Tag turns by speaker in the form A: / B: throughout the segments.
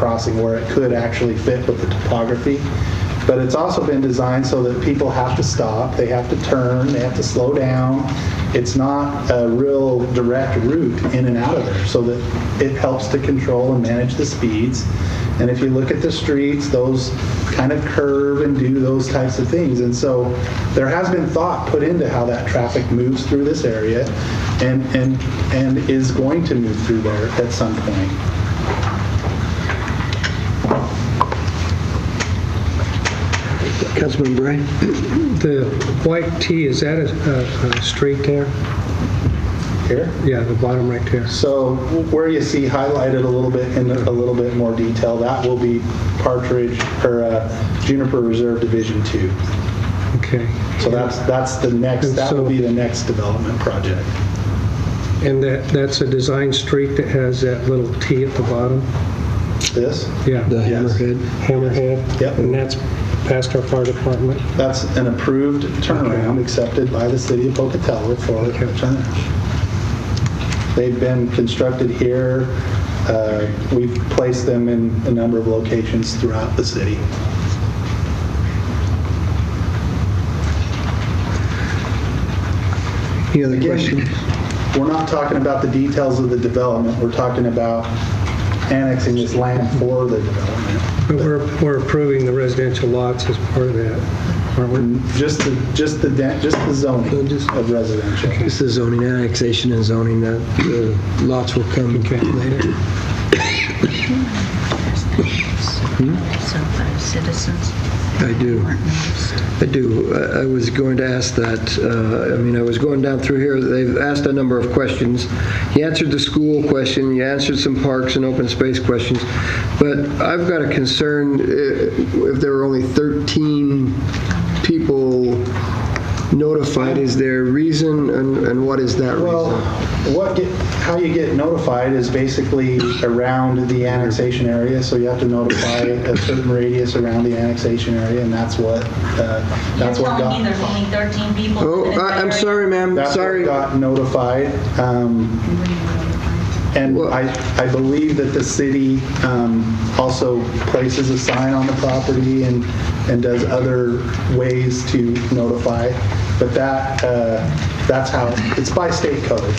A: crossing where it could actually fit with the topography. But it's also been designed so that people have to stop, they have to turn, they have to slow down. It's not a real direct route in and out of there, so that it helps to control and manage the speeds. And if you look at the streets, those kind of curve and do those types of things. And so there has been thought put into how that traffic moves through this area and, and, and is going to move through there at some point.
B: Councilman Bray?
C: The white tee, is that a, a- a street there?
A: Here?
C: Yeah, the bottom right there.
A: So where you see highlighted a little bit in a little bit more detail, that will be Partridge or uh, Juniper Reserve Division Two.
C: Okay.
A: So that's, that's the next, that will be the next development project.
C: And that, that's a design street that has that little tee at the bottom?
A: This,
B: The
C: Yeah.
A: Yes.
B: hammerhead?
C: Hammerhead?
A: Yep.
C: And that's past our fire department?
A: that's an approved turnaround accepted by the city of Pocatello for a
C: Okay.
A: turnaround. They've been constructed here. Uh, We've placed them in a number of locations throughout the city.
B: Any other
A: Again,
B: questions?
A: We're not talking about the details of the development, we're talking about annexing this land for the development.
C: But we're, we're approving the residential lots as part of that, aren't we?
A: Just the, just the, de- just the zoning
B: No, just-
A: of residential.
B: This is zoning annexation and zoning, that uh, lots will come
C: Okay.
B: later.
D: So five citizens
B: I do.
D: weren't noticed.
B: I do. I I was going to ask that, uh, I mean, I was going down through here, they've asked a number of questions. You answered the school question, you answered some parks and open space questions, but I've got a concern, uh, if there were only 13 people notified, is there a reason, and and what is that
A: Well,
B: reason?
A: what, get- how you get notified is basically around the annexation area, so you have to notify a certain radius around the annexation area, and that's what, uh,
E: You're
A: that's what
E: telling me
A: got,
E: there's only 13 people?
B: Oh,
E: in that
B: I- I'm
E: area?
B: sorry, ma'am,
A: that's what
B: sorry.
A: got notified. Um, And
B: Well-
A: I, I believe that the city um, also places a sign on the property and, and does other ways to notify, but that, uh, that's how, it's by state code.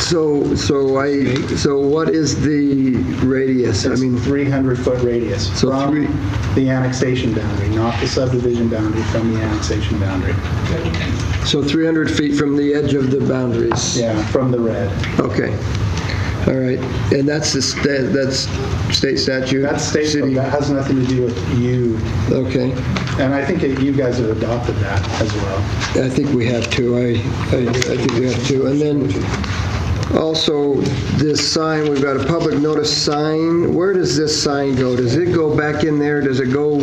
B: So, so I, so what is the radius? I
A: It's
B: mean,
A: 300-foot radius
B: So
A: from
B: three-
A: the annexation boundary, not the subdivision boundary, from the annexation boundary.
B: so 300 feet from the edge of the boundaries?
A: Yeah, from the red.
B: Okay, all right, and that's the, sta- that's state statute?
A: That's state
B: City.
A: code, that has nothing to do with you,
B: Okay,
A: and I think that you guys have adopted that as well.
B: I think we have to, I, I I think we have to. And then also, this sign, we've got a public notice sign, where does this sign go? Does it go back in there, does it go,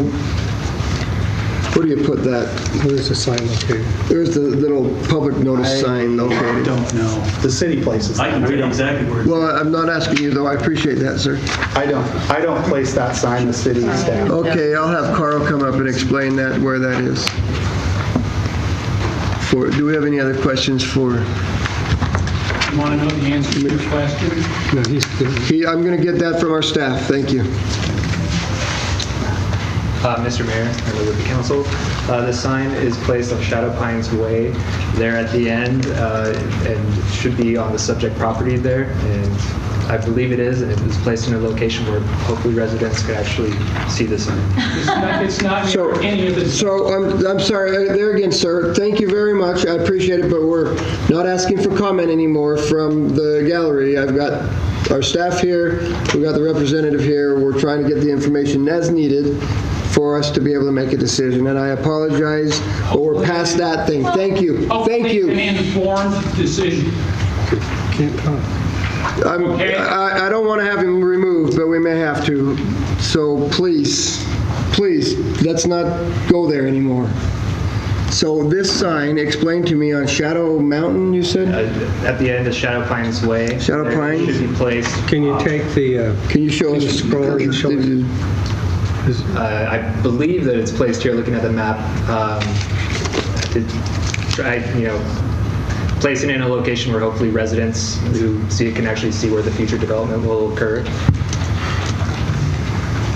B: where do you put that?
C: Where's the sign located?
B: There's the little public notice sign
A: I
B: located.
A: don't know. The city places
F: I
A: that.
F: can read exactly where it's
B: Well, I'm not asking you, though, I appreciate that, sir.
A: I don't, I don't place that sign, the city staff.
B: Okay, I'll have Carl come up and explain that, where that is. For, do we have any other questions for,
G: You want to know the answer to your question?
C: No, he's,
B: he, I'm going to get that from our staff, thank you.
H: Uh, Mr. Mayor, and members of the council, uh, the sign is placed on Shadow Pines Way there at the end uh, and should be on the subject property there. And I believe it is, and it was placed in a location where hopefully residents could actually see the sign.
G: It's not, it's not
B: So-
G: near any of the
B: So, I'm, I'm sorry, uh, there again, sir, thank you very much, I appreciate it, but we're not asking for comment anymore from the gallery. I've got our staff here, we've got the representative here, we're trying to get the information as needed for us to be able to make a decision, and I apologize, but we're past that thing, thank you, Oh, thank you.
G: Hopefully an informed decision.
C: can't talk.
B: I'm-
G: Okay.
B: I I don't want to have him removed, but we may have to. So please, please, let's not go there anymore. So this sign, explain to me, on Shadow Mountain, you
H: Uh,
B: said?
H: At the end of Shadow Pines Way.
B: Shadow
H: there
B: Pines?
H: Should be placed.
C: Can you
H: uh,
C: take the, uh,
B: Can you show
C: Can
B: us?
C: you scroll and show us? is-
H: uh, I believe that it's placed here, looking at the map. um, to Try, you know, placing it in a location where hopefully residents who see it can actually see where the future development will occur.